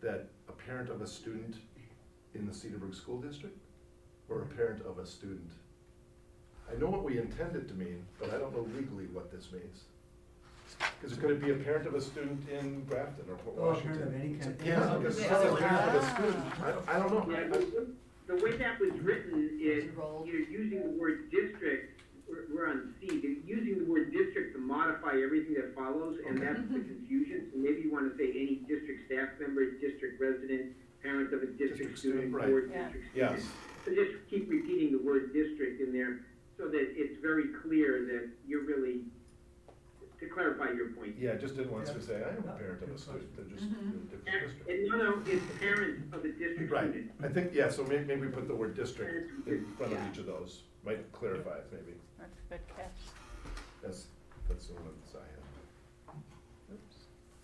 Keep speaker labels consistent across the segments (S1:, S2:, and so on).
S1: that a parent of a student in the Cedarburg School District or a parent of a student? I know what we intend it to mean, but I don't know legally what this means. Because could it be a parent of a student in Grafton or Port
S2: Oh, a parent
S1: Washington?
S2: of any kind.
S1: Yeah, because it's a parent of a student, I, I don't
S3: Yeah,
S1: know.
S3: the, the way that was written is,
S4: Roll.
S3: you're using the word district, we're, we're on C, you're using the word district to modify everything that follows, and
S1: Okay.
S3: that's the confusion, so maybe you wanna say any district staff member, district resident, parent of a
S1: District
S3: district
S1: student,
S3: student,
S1: right.
S3: or district student.
S4: Yeah.
S1: Yes,
S3: So just keep repeating the word district in there, so that it's very clear that you're really, to clarify your point.
S1: yeah, just didn't want us to say, I am a parent of a student, they're just in a different district.
S3: And no, no, it's parent of a district
S1: Right,
S3: student.
S1: I think, yeah, so maybe, maybe we put the word district in front of
S4: Yeah.
S1: each of those, might clarify it maybe,
S4: That's a good catch.
S1: that's, that's the ones I had.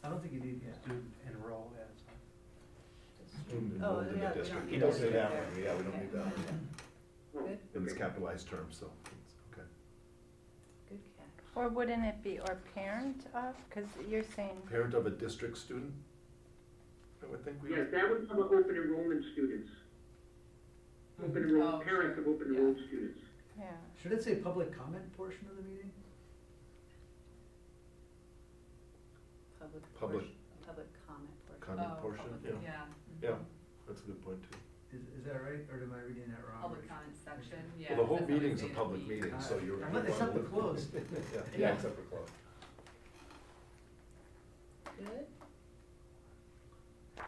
S2: I don't think you need student enroll as.
S1: Student
S4: Oh,
S1: enrolled in
S4: yeah,
S1: the
S4: we don't
S1: district,
S4: need
S1: it does
S4: that.
S1: say that one, yeah, we don't need that one,
S3: Oh,
S4: Good.
S1: and it's
S3: okay.
S1: capitalized term, so, it's okay.
S4: Good catch.
S5: Or wouldn't it be, or parent of, because you're saying,
S1: Parent of a district student? I would think we
S3: Yes,
S1: would,
S3: that would cover open enrollment students. Open
S4: Oh,
S3: enrollment, parents of
S4: sure.
S3: open enrolled students.
S5: yeah,
S2: Should it say public comment portion of the meeting?
S4: Public.
S1: Public.
S4: portion- Public comment. portion.
S1: Comment
S4: Oh,
S1: portion,
S4: public-
S1: yeah. yeah, that's a good point too.
S2: Is, is that right, or am I reading that wrong?
S4: Public comment section, yeah.
S1: Well, the whole
S4: that's how we
S1: meeting's a
S4: say it.
S1: public meeting, so you're.
S2: Uh, except for closed.
S1: Yeah, yeah,
S4: Yeah.
S1: except for closed.
S4: Good.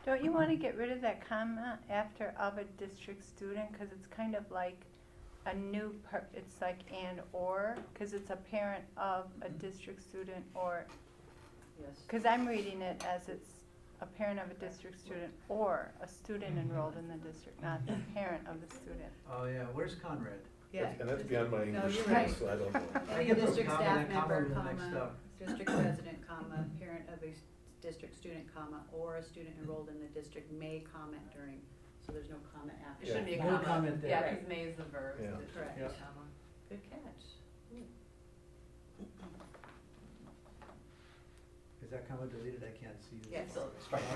S5: don't you want to get rid of that comma after of a district student? Because it's kind of like a new, per- it's like and or, because it's a parent of a
S4: Mm-hmm.
S5: district student or,
S4: Yes.
S5: because I'm reading it as it's a parent of a district student or a student
S1: Mm-hmm.
S5: enrolled in the district, not the parent of the student.
S2: Oh, yeah, where's Conrad?
S4: Yeah.
S1: And that's beyond my
S4: No,
S1: English
S4: you're
S1: skills,
S4: right.
S1: so I don't know.
S2: I
S4: Your
S2: think it's a
S4: district
S2: comma,
S4: staff
S2: that comma
S4: member,
S2: would be next
S4: comma,
S2: up.
S4: district resident, comma, parent of a s- district student, comma, or a student enrolled in the district may comment during, so there's no comment after.
S6: It should be a
S2: No
S6: comma.
S2: comment there.
S6: Yeah, because may is the verb, so
S1: Yeah.
S6: it should be a
S2: Correct.
S6: comma.
S4: Good catch.
S2: Is that comma deleted? I can't see. it.
S4: Yes.
S2: All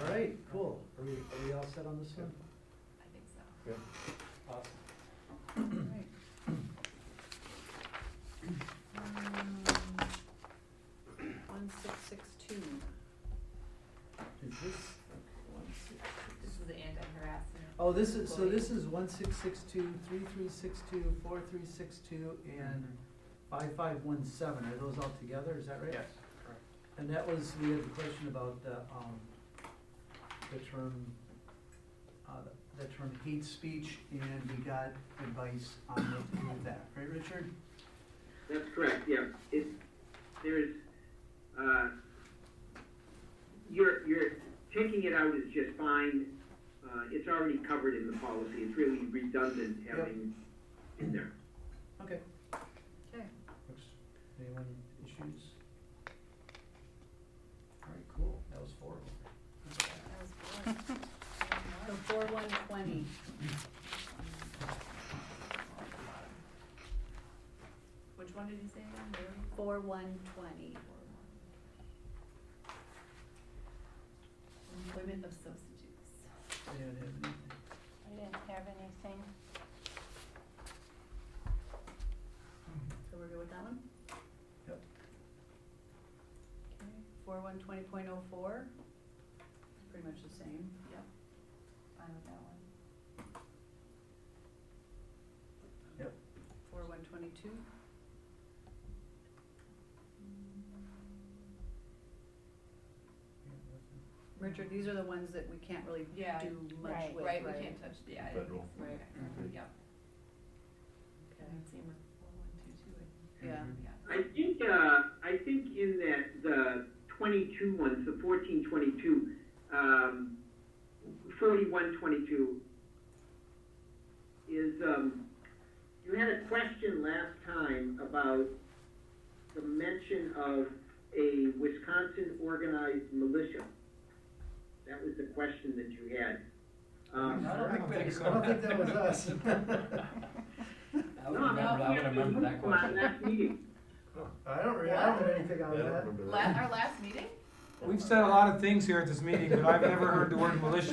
S2: right, cool. Are we, are we all set on this one?
S6: I think so.
S1: Yeah.
S2: Awesome.
S4: Right. Mm. One six six two.
S2: Is this,
S6: This is the anti-harassment.
S2: oh, this is, so this is one six six two, three three six two, four three six two, and five five one seven. Are those all together? Is that right?
S7: Yes,
S2: And that was, we had the question about the, um, the term, uh, the term hate speech, and we got advice on what to do with that, right, Richard?
S3: That's correct, yeah. It, there's, uh, you're, you're, taking it out is just fine. Uh, it's already covered in the policy. It's really redundant having in there.
S2: Okay.
S4: Okay.
S2: Looks, anyone issues? All right, cool, that was four.
S4: That was good. So four one twenty.
S6: Which one did you say again? Mary?
S4: Four one twenty.
S6: Employment of substitutes.
S2: Anyone have anything?
S5: I didn't have anything.
S4: So we're good with that one?
S2: Yep.
S4: Okay, four one twenty point oh four. Pretty much the same.
S6: Yep. Fine with that one.
S2: Yep.
S4: Four one twenty-two. Richard, these are the ones that we can't really do
S6: Yeah,
S4: much
S5: right,
S4: with,
S6: Right, we can't touch, yeah. I didn't
S1: Federal.
S6: think so.
S4: Right.
S6: Okay, Yep.
S4: Okay.
S6: And same with four one two two, I think.
S4: Yeah.
S2: Mm-hmm.
S6: Yeah.
S3: I think, uh, I think in that, the twenty-two ones, the fourteen twenty-two, um, forty-one twenty-two is, um, you had a question last time about the mention of a Wisconsin organized militia. That was the question that you had. Um,
S2: I don't think
S7: I don't think
S2: that, I don't
S7: so.
S2: think that was us.
S7: I would
S3: no,
S7: remember, I
S3: we
S7: would
S3: have to
S7: remember
S3: move
S7: that
S3: on
S7: question.
S3: Next meeting.
S2: I don't, re- I don't have anything
S1: I
S2: on
S1: don't
S2: that.
S1: remember that.
S6: La- our last meeting?
S8: We've said a lot of things here at this meeting, but I've never heard the word militia